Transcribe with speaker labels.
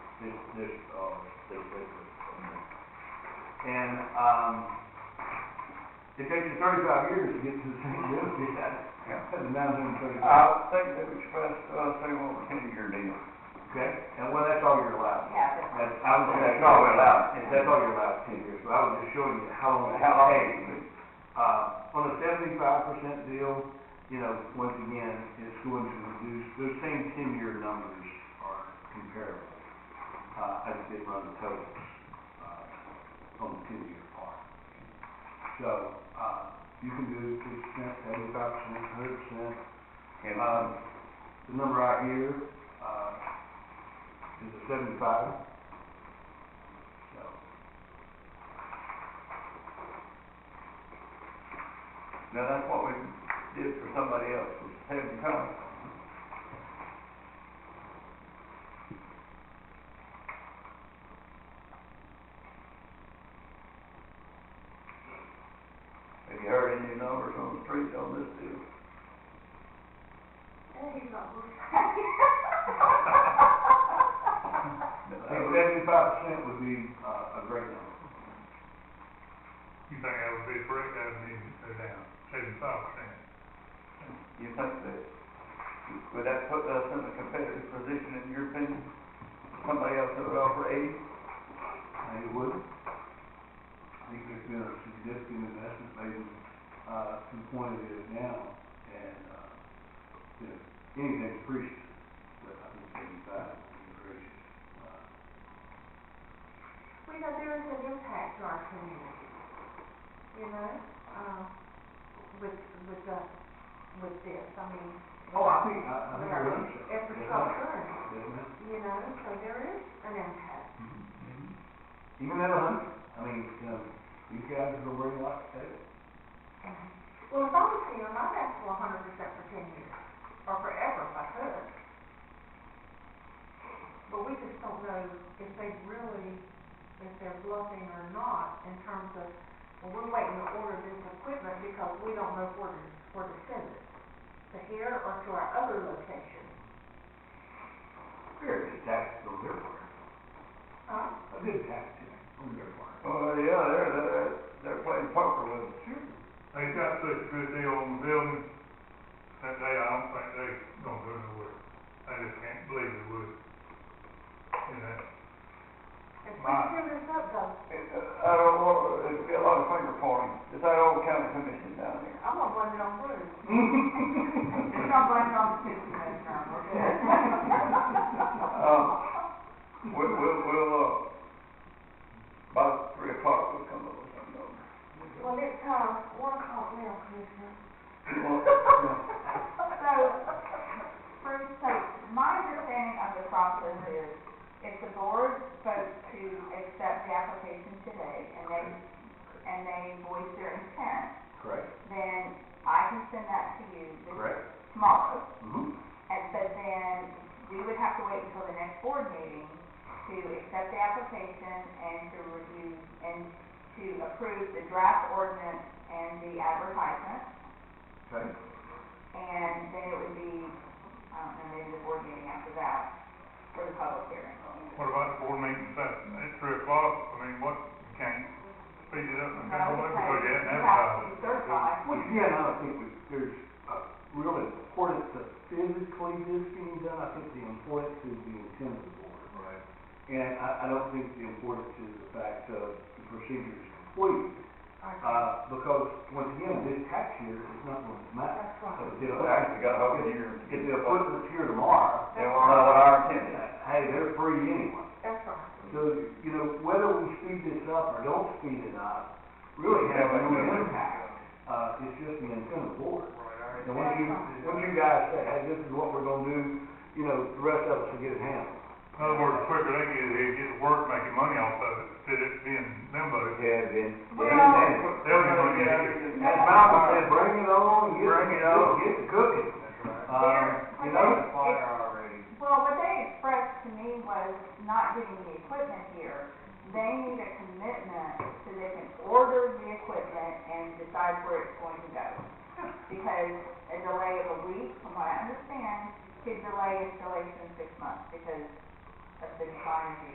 Speaker 1: this, this, uh, their business. And, um, it takes you thirty-five years to get to the same benefit, that's nine hundred and thirty-five,
Speaker 2: I think they would express, uh, say, well, ten-year deal.
Speaker 1: okay? And well, that's all you're allowed.
Speaker 3: happen.
Speaker 1: That's, I was
Speaker 2: That's all we're allowed.
Speaker 1: That's all you're allowed, ten years, so I was just showing you how long it
Speaker 2: How long
Speaker 1: takes.
Speaker 2: it would-
Speaker 1: Uh, on a seventy-five percent deal, you know, once again, it's going to reduce, those same ten-year numbers are comparable. Uh, I just did run the totals, uh, on the ten-year part. So, uh, you can do fifty percent, seventy-five percent, hundred percent,
Speaker 2: And, uh,
Speaker 1: um, the number out here, uh, is a seventy-five. So,
Speaker 2: now that's what we did for somebody else, was seven times. Have you heard any numbers on the street on this deal?
Speaker 1: I think seventy-five percent would be, uh, a great number.
Speaker 4: You think that would be correct, that would be, go down, seventy-five percent.
Speaker 2: You think that, would that put us in a competitive position in your opinion? Somebody else that would offer eighty?
Speaker 1: And it would. I think there's been a significant investment made, uh, to the point it is now, and, uh, you know, anything's appreciated, but I think seventy-five would be appreciated. Uh,
Speaker 3: We know there is an impact to our community, you know, um, with, with the, with this, I mean.
Speaker 1: Oh, I think, I, I think I
Speaker 3: With our
Speaker 1: understand.
Speaker 3: infrastructure,
Speaker 1: Doesn't it?
Speaker 3: you know, so there is an impact.
Speaker 1: Even at a hundred, I mean, you know, these guys are gonna bring a lot to the table.
Speaker 3: Well, if I was here, I'd ask for a hundred percent for ten years, or forever if I could. But we just don't know if they really, if they're bluffing or not in terms of, well, we're waiting to order this equipment because we don't know where to, where to send it. To here or to our other location.
Speaker 1: Fair, it's taxed on their part,
Speaker 3: Huh?
Speaker 1: a good tax to them, on their part.
Speaker 2: Oh, yeah, they're, they're, they're playing poker with us.
Speaker 1: Sure.
Speaker 4: They got such a good deal on the building, that they, I don't think they gonna go nowhere. I just can't believe they would. You know,
Speaker 3: If we
Speaker 4: Right.
Speaker 3: send this up though,
Speaker 2: I don't want, there's a lot of finger pointing. It's that old county commission down there.
Speaker 3: I'm gonna blame it on Bruce.
Speaker 5: It's not blamed on the system this time, okay?
Speaker 2: Um, We'll, we'll, we'll, uh, about three o'clock, we'll come up with some numbers.
Speaker 3: Well, it's, uh, one o'clock now, Commissioner.
Speaker 2: Well,
Speaker 3: So,
Speaker 5: Bruce, so my understanding of the process is, if the board votes to accept the application today, and they, and they voice their intent,
Speaker 1: Correct,
Speaker 5: then I can send that to you this
Speaker 1: correct.
Speaker 5: tomorrow.
Speaker 1: Mm-hmm.
Speaker 5: And, but then, we would have to wait until the next board meeting to accept the application and to review, and to approve the draft ordinance and the advertisement.
Speaker 1: Okay.
Speaker 5: And then it would be, um, I don't know, maybe the board meeting after that for the public hearing.
Speaker 4: what about the board meeting Saturday, at three o'clock, I mean, what, you can't speed it up and
Speaker 5: No,
Speaker 4: down,
Speaker 5: because
Speaker 4: because you haven't
Speaker 5: You have to
Speaker 4: advertised.
Speaker 5: be certified.
Speaker 1: Once again, I don't think we- there's a real importance to physically this being done, I think the importance is the intent of the board. Right. And I, I don't think the importance is the fact of the procedure is complete, uh, because, once again, this tax year is not going to matter.
Speaker 3: that's right.
Speaker 1: So if
Speaker 2: Well,
Speaker 1: the-
Speaker 2: actually got over here.
Speaker 1: If the equipment's here tomorrow,
Speaker 2: They want to know what our intent is.
Speaker 1: hey, they're free anyway.
Speaker 3: That's right.
Speaker 1: So, you know, whether we speed this up or don't speed it up, really has no impact. Uh, it's just the intent of the board.
Speaker 4: Right,
Speaker 1: And once you, once you guys say, hey, this is what we're gonna do, you know, the rest of us will get it handled.
Speaker 4: I- In other words, the quicker they get it, here, get to work, making money off of it, instead of it being limbo.
Speaker 2: Yeah, then.
Speaker 5: Well-
Speaker 4: They'll get money out of it.
Speaker 1: As Bible said, bring it on, get,
Speaker 2: Bring it on.
Speaker 1: get the cooking. Um, you know,
Speaker 2: already.
Speaker 5: Well, what they expressed to me was not getting the equipment here. They need a commitment so they can order the equipment and decide where it's going to go. Because a delay of a week, from what I understand, could delay installation six months because of the time